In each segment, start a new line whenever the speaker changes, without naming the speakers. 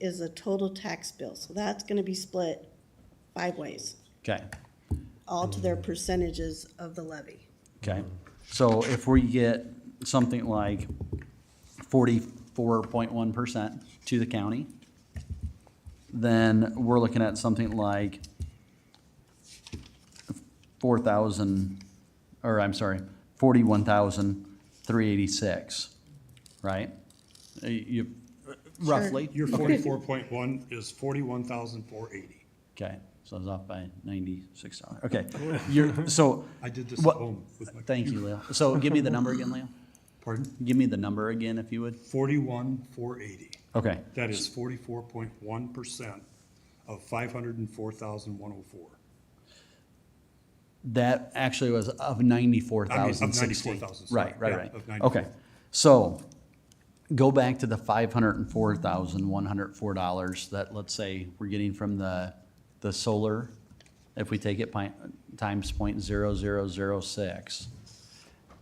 is a total tax bill, so that's gonna be split five ways,
Okay,
all to their percentages of the levy.
okay. So if we get something like forty-four point one percent to the county, then we're looking at something like four thousand, or I'm sorry, forty-one thousand three eighty-six, right? Uh, You, roughly?
Your forty-four point one is forty-one thousand four eighty.
Okay, so I was off by ninety-six dollars, okay. You're, so.
I did this at
what-
home with my
Thank you, Leo. So give me the number again, Leo.
Pardon?
Give me the number again, if you would.
Forty-one four eighty.
Okay,
That is forty-four point one percent of five hundred and four thousand one oh four.
that actually was of ninety-four
I mean, of
thousand sixteen.
94,000, sorry.
Right, right,
Yeah,
right.
of 94.
Okay, so go back to the five hundred and four thousand, one hundred four dollars that, let's say, we're getting from the, the solar. If we take it pi- times point zero zero zero six,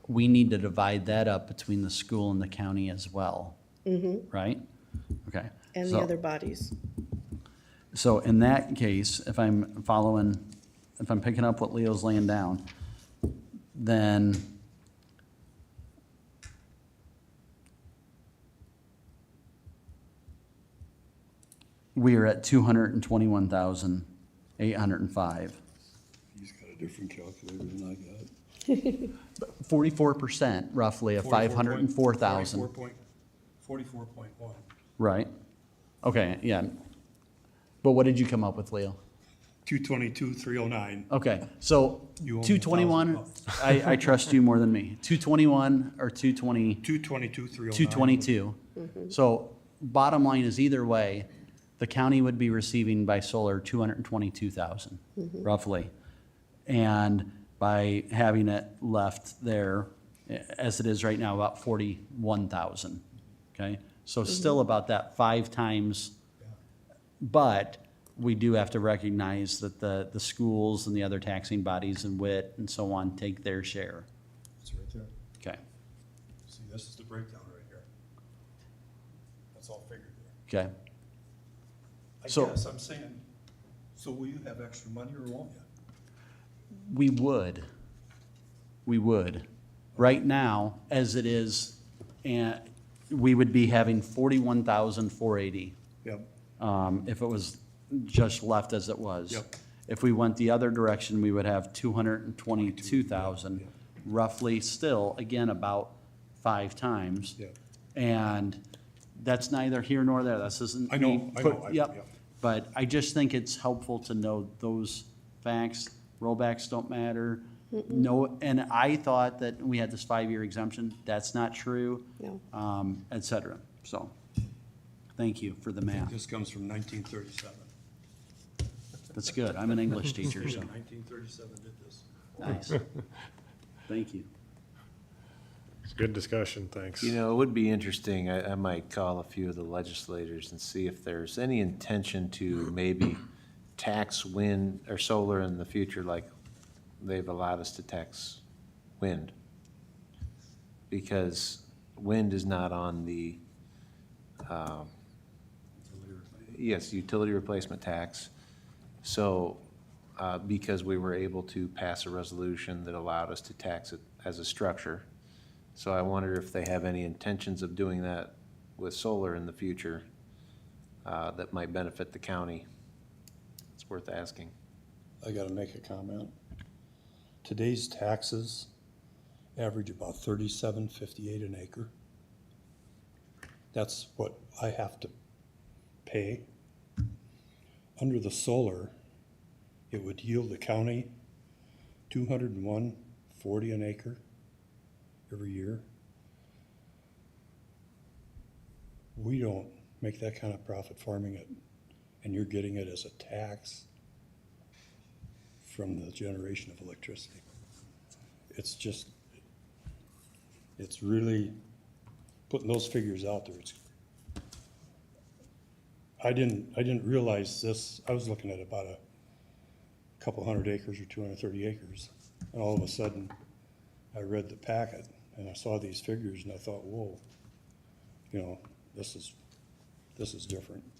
we need to divide that up between the school and the county as well. Right? Okay.
Mm-hmm. And the
so-
other bodies.
So in that case, if I'm following, if I'm picking up what Leo's laying down, then we are at two hundred and twenty-one thousand, eight hundred and five.
He's got a different calculator than I got.
Forty-four percent roughly of five hundred and
Forty-four
four thousand,
point, forty-four point one.
right? Okay, yeah. But what did you come up with, Leo?
Two twenty-two, three oh nine.
Okay, so
You owe me
two twenty-one, I, I trust you more than me. Two twenty-one or two twenty,
Two twenty-two, three oh nine.
two twenty-two. So bottom line is either way, the county would be receiving by solar two hundred and twenty-two thousand, roughly. And by having it left there, eh, as it is right now, about forty-one thousand, okay? So still about that five times. But we do have to recognize that the, the schools and the other taxing bodies and WIT and so on take their share.
It's right there.
Okay,
See, this is the breakdown right here. That's all figured there.
okay.
I
So-
guess I'm saying, so will you have extra money or won't you?
We would, we would. Right now, as it is, and we would be having forty-one thousand four eighty,
Yep.
um, if it was just left as it was.
Yep.
If we went the other direction, we would have two hundred and twenty-two thousand, roughly still, again, about five times.
Yeah.
And that's neither here nor there, this isn't.
I know,
me
I
put-
know, I- yeah.
Yep, but I just think it's helpful to know those facts, rollbacks don't matter. No, and I thought that we had this five-year exemption, that's not true.
No.
Um, et cetera, so, thank you for the math,
This comes from nineteen thirty-seven.
that's good, I'm an English teacher, so,
Nineteen thirty-seven did this.
nice. Thank you.
It's good discussion, thanks.
You know, it would be interesting, I, I might call a few of the legislators and see if there's any intention to maybe tax wind or solar in the future, like they've allowed us to tax wind. Because wind is not on the, um, yes, utility replacement tax. So, uh, because we were able to pass a resolution that allowed us to tax it as a structure. So I wonder if they have any intentions of doing that with solar in the future uh, that might benefit the county. It's worth asking.
I gotta make a comment. Today's taxes average about thirty-seven fifty-eight an acre. That's what I have to pay. Under the solar, it would yield the county two hundred and one forty an acre every year. We don't make that kind of profit farming it, and you're getting it as a tax from the generation of electricity. It's just, it's really, putting those figures out there, it's, I didn't, I didn't realize this, I was looking at about a couple hundred acres or two hundred and thirty acres, and all of a sudden, I read the packet, and I saw these figures, and I thought, whoa, you know, this is, this is different.